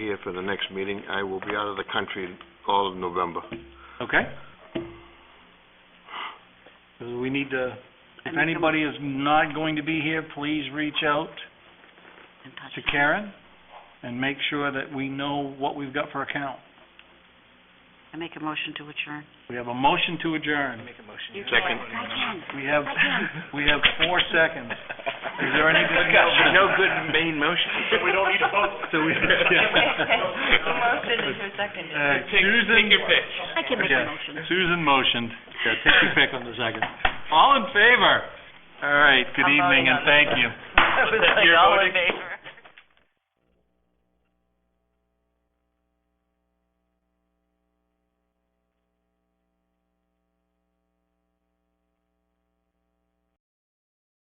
here for the next meeting. I will be out of the country all of November. Okay. So We need to, if anybody is not going to be here, please reach out in touch. to Karen and make sure that we know what we've got for account. I make a motion to adjourn. We have a motion to adjourn. Second. I can. We have, Again. we have four seconds. Is there any good motion? No good main motion. We don't need a vote. So we, Motion yeah. to second. Uh, Susan. Take your pick. I can make Yeah. a motion. Susan motioned. Yeah, take your pick on the second. All in favor? All right, good I'm evening voting and on it. thank you. It was like You're all voting? in favor.